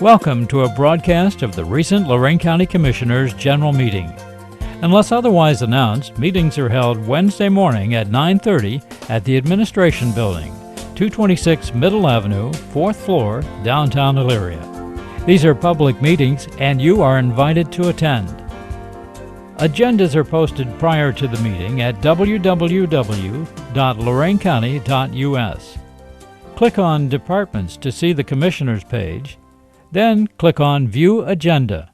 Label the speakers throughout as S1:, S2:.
S1: Welcome to a broadcast of the recent Lorraine County Commissioners' General Meeting. Unless otherwise announced, meetings are held Wednesday morning at 9:30 at the Administration Building, 226 Middle Avenue, 4th floor, downtown Elyria. These are public meetings and you are invited to attend. Agendas are posted prior to the meeting at www.loraincounty.us. Click on Departments to see the Commissioners page, then click on View Agenda.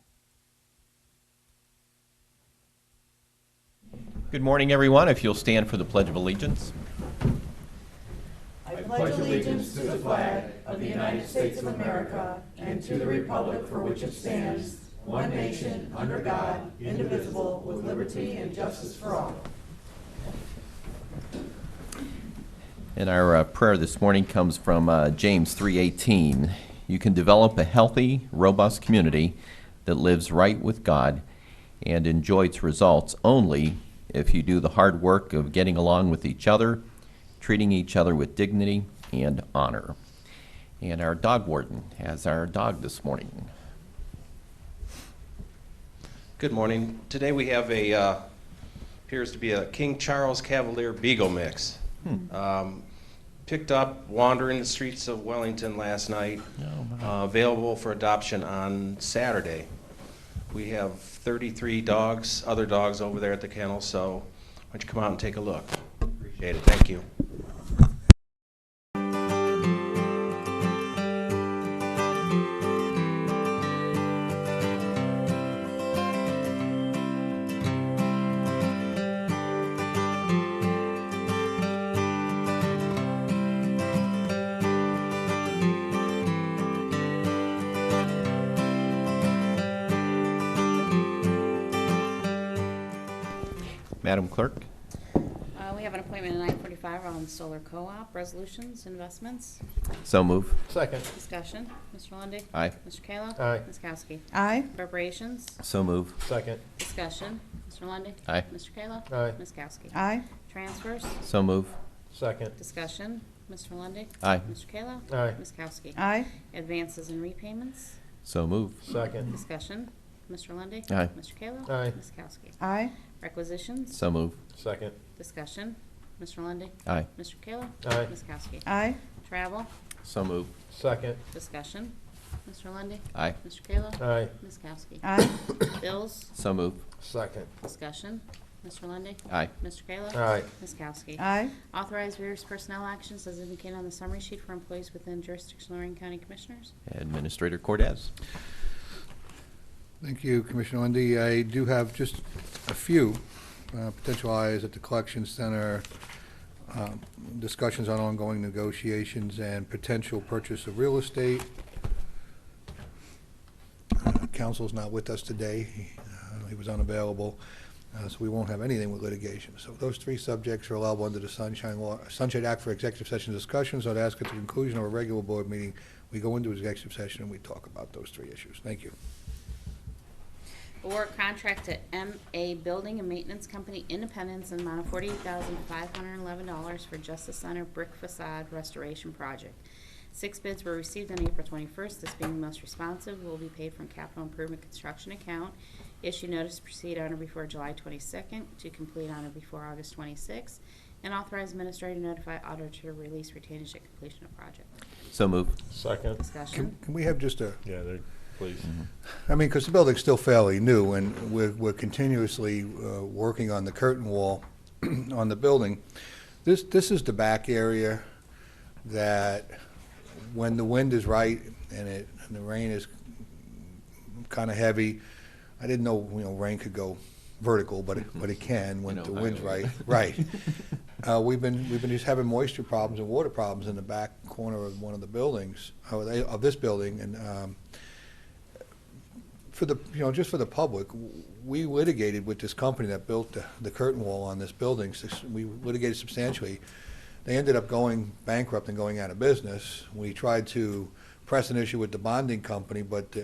S2: Good morning, everyone. If you'll stand for the Pledge of Allegiance. And our uh, prayer this morning comes from uh, James 3:18. You can develop a healthy, robust community that lives right with God and enjoy its results only if you do the hard work of getting along with each other, treating each other with dignity and honor. And our dog warden has our dog this morning.
S3: Good morning. Today we have a, uh, appears to be a King Charles Cavalier Beagle mix. Um, Picked up wandering the streets of Wellington last night. Uh, Available for adoption on Saturday. We have 33 dogs, other dogs over there at the kennel, so why don't you come out and take a look? Appreciate it. Thank you.
S2: Madam Clerk?
S4: Uh, We have an appointment at nine forty-five on solar co-op, resolutions, investments,
S2: So move.
S5: Second.
S4: discussion. Mr. Lundy,
S2: Aye.
S4: Mr. Kayla?
S5: Aye.
S4: Ms. Kowski?
S6: Aye.
S4: Appropriations,
S2: So move.
S5: Second.
S4: discussion. Mr. Lundy,
S2: Aye.
S4: Mr. Kayla?
S5: Aye.
S4: Ms. Kowski?
S6: Aye.
S4: Transfers,
S2: So move.
S5: Second.
S4: discussion. Mr. Lundy,
S2: Aye.
S4: Mr. Kayla?
S5: Aye.
S4: Ms. Kowski?
S6: Aye.
S4: Advances and repayments,
S2: So move.
S5: Second.
S4: discussion. Mr. Lundy,
S2: Aye.
S4: Mr. Kayla?
S5: Aye.
S4: Ms. Kowski?
S6: Aye.
S4: Requisitions,
S2: So move.
S5: Second.
S4: discussion. Mr. Lundy,
S2: Aye.
S4: Mr. Kayla?
S5: Aye.
S4: Ms. Kowski?
S6: Aye.
S4: Travel,
S2: So move.
S5: Second.
S4: discussion. Mr. Lundy,
S2: Aye.
S4: Mr. Kayla?
S5: Aye.
S4: Ms. Kowski?
S6: Aye.
S4: Bills,
S2: So move.
S5: Second.
S4: discussion. Mr. Lundy,
S2: Aye.
S4: Mr. Kayla?
S5: Aye.
S4: Ms. Kowski?
S6: Aye.
S4: Authorize various personnel actions as indicated on the summary sheet for employees within jurisdiction of Lorraine County Commissioners.
S2: Administrator Cordez?
S7: Thank you, Commissioner Lundy. I do have just a few uh, potential hires at the collection center, um, discussions on ongoing negotiations and potential purchase of real estate. Uh, Counsel's not with us today. He, uh, He was unavailable, uh, so we won't have anything with litigation. So those three subjects are allowable under the Sunshine Law, Sunshine Act for executive session discussions. I'd ask at the conclusion of a regular board meeting, we go into executive session and we talk about those three issues. Thank you.
S4: Award contract to MA Building and Maintenance Company Independence in the amount of forty-eight thousand five hundred and eleven dollars for Justice Center Brick Facade Restoration Project. Six bids were received on April twenty-first, this being the most responsive, will be paid from capital improvement construction account. Issue notice to proceed on or before July twenty-second, to complete on or before August twenty-sixth, and authorize administrator to notify auditor to release retainage at completion of project.
S2: So move.
S5: Second.
S4: Discussion.
S7: Can, can we have just a,
S5: Yeah, there, please.
S7: I mean, because the building's still fairly new, and we're, we're continuously uh, working on the curtain wall on the building. This, this is the back area that, when the wind is right and it, and the rain is kind of heavy, I didn't know, you know, rain could go vertical, but it, but it can when
S2: In
S7: the wind's
S2: Ohio.
S7: right, right. Uh, we've been, we've been just having moisture problems and water problems in the back corner of one of the buildings, uh, of the- of this building, and, um, for the, you know, just for the public, w- we litigated with this company that built the, the curtain wall on this building, sus- we litigated substantially. They ended up going bankrupt and going out of business. We tried to press an issue with the bonding company, but